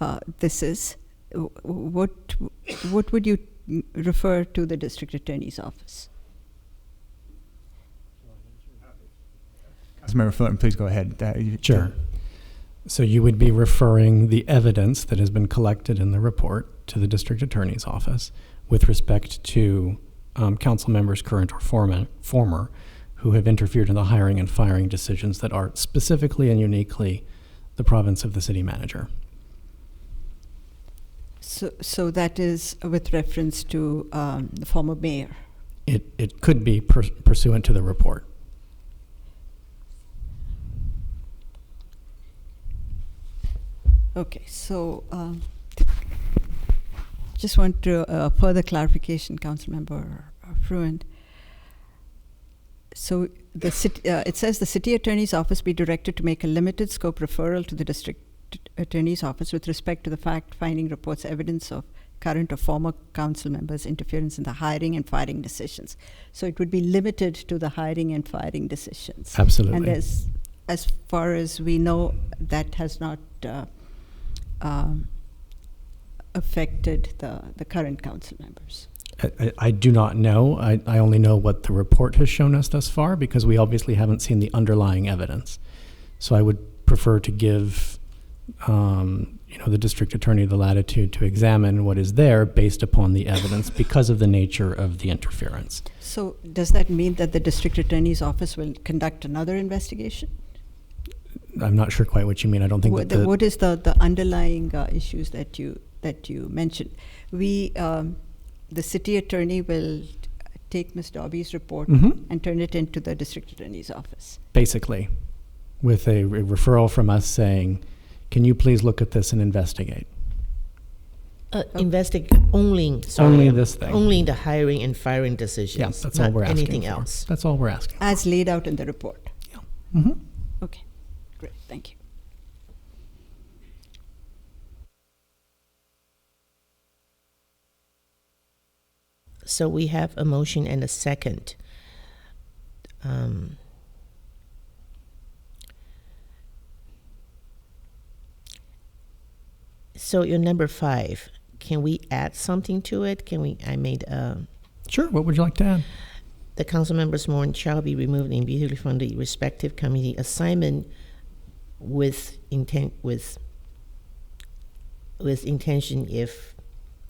uh, this is, w- what, what would you refer to the district attorney's office? Councilmember Fullerton, please go ahead. That- you- Sure. So you would be referring the evidence that has been collected in the report to the district attorney's office with respect to um, council members, current or former, former, who have interfered in the hiring and firing decisions that are specifically and uniquely the province of the city manager. So, so that is with reference to um, the former mayor. It, it could be pur- pursuant to the report. Okay, so um, just want to uh, further clarification, Councilmember Fruin. So the city, uh, it says the city attorney's office be directed to make a limited scope referral to the district attorney's office with respect to the fact-finding reports evidence of current or former council members' interference in the hiring and firing decisions. So it would be limited to the hiring and firing decisions. And Absolutely. as, as far as we know, that has not uh, um, affected the, the current council members. I, I- I do not know. I, I only know what the report has shown us thus far because we obviously haven't seen the underlying evidence. So I would prefer to give, um, you know, the district attorney the latitude to examine what is there based upon the evidence because of the nature of the interference. So does that mean that the district attorney's office will conduct another investigation? I'm not sure quite what you mean. I don't think What, that the, the, what is the, the underlying uh, issues that you that you mentioned? We, um, the city attorney will take Ms. Dobby's report Mhm. and turn it into the district attorney's office. basically, with a re- referral from us saying, can you please look at this and investigate? Uh, Oh. investigate only, sorry, Only this thing. only the hiring and firing decisions. Yes, that's all not we're asking Anything for. else. That's all we're asking. As laid out in the report. Mm-hmm. Okay, great, thank you. So we have a motion and a second. Um, so your number five, can we add something to it? Can we? I made uh, Sure. What would you like to add? the council members more shall be removed immediately from the respective committee assignment with intent with with intention if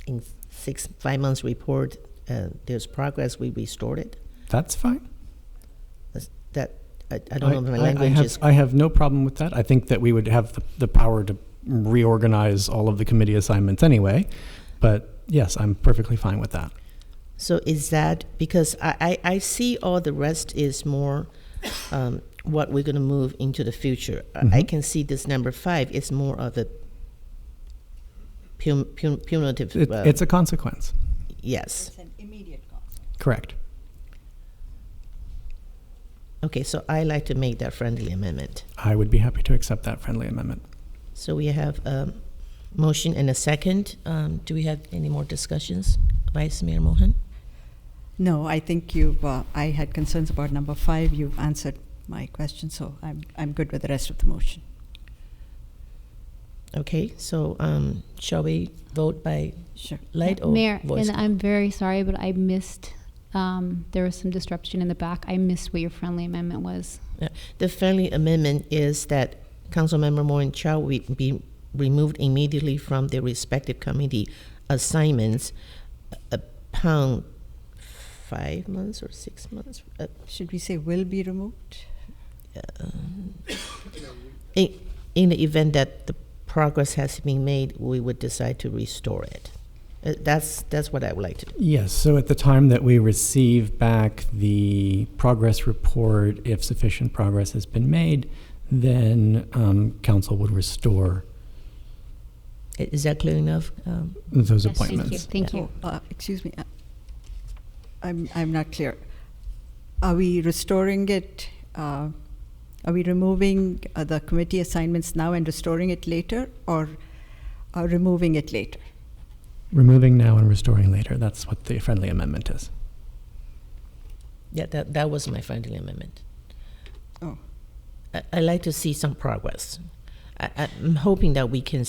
in six five months report uh, there's progress we restored it That's fine. That's- that I, I don't know if my I- I language have- is I have no problem with that. I think that we would have the, the power to reorganize all of the committee assignments anyway. But yes, I'm perfectly fine with that. so is that because I, I, I see all the rest is more um, what we're going to move into the future I- I Mhm. can see this number five is more of a pun, pun, punitive It, uh, it's a consequence. Yes. an immediate cost. Correct. Okay, so I like to make that friendly amendment. I would be happy to accept that friendly amendment. So we have a motion and a second. Um, do we have any more discussions, Vice Mayor Mohan? No, I think you've, uh, I had concerns about number five. You've answered my question, so I'm, I'm good with the rest of the motion. Okay, so um, shall we vote by Sure. light or Mayor, voice? and I'm very sorry, but I missed. Um, there was some disruption in the back. I missed what your friendly amendment was. Yeah. The friendly amendment is that Councilmember Moore and Chow will be removed immediately from their respective committee assignments upon five months or six months. Uh, Should we say will be removed? Um, In, in the event that the progress has been made, we would decide to restore it. Uh, That's, that's what I would like to do. Yes, so at the time that we receive back the progress report, if sufficient progress has been made, then um, council would restore I- Is that clear enough? Um, those Yes, thank you. appointments. Thank you. Oh, uh, excuse me, uh, I'm, I'm not clear. Are we restoring it? Uh, are we removing uh, the committee assignments now and restoring it later, or uh, removing it later? Removing now and restoring later. That's what the friendly amendment is. Yeah, that, that was my friendly amendment. Oh. I, I like to see some progress. I, I'm hoping that we can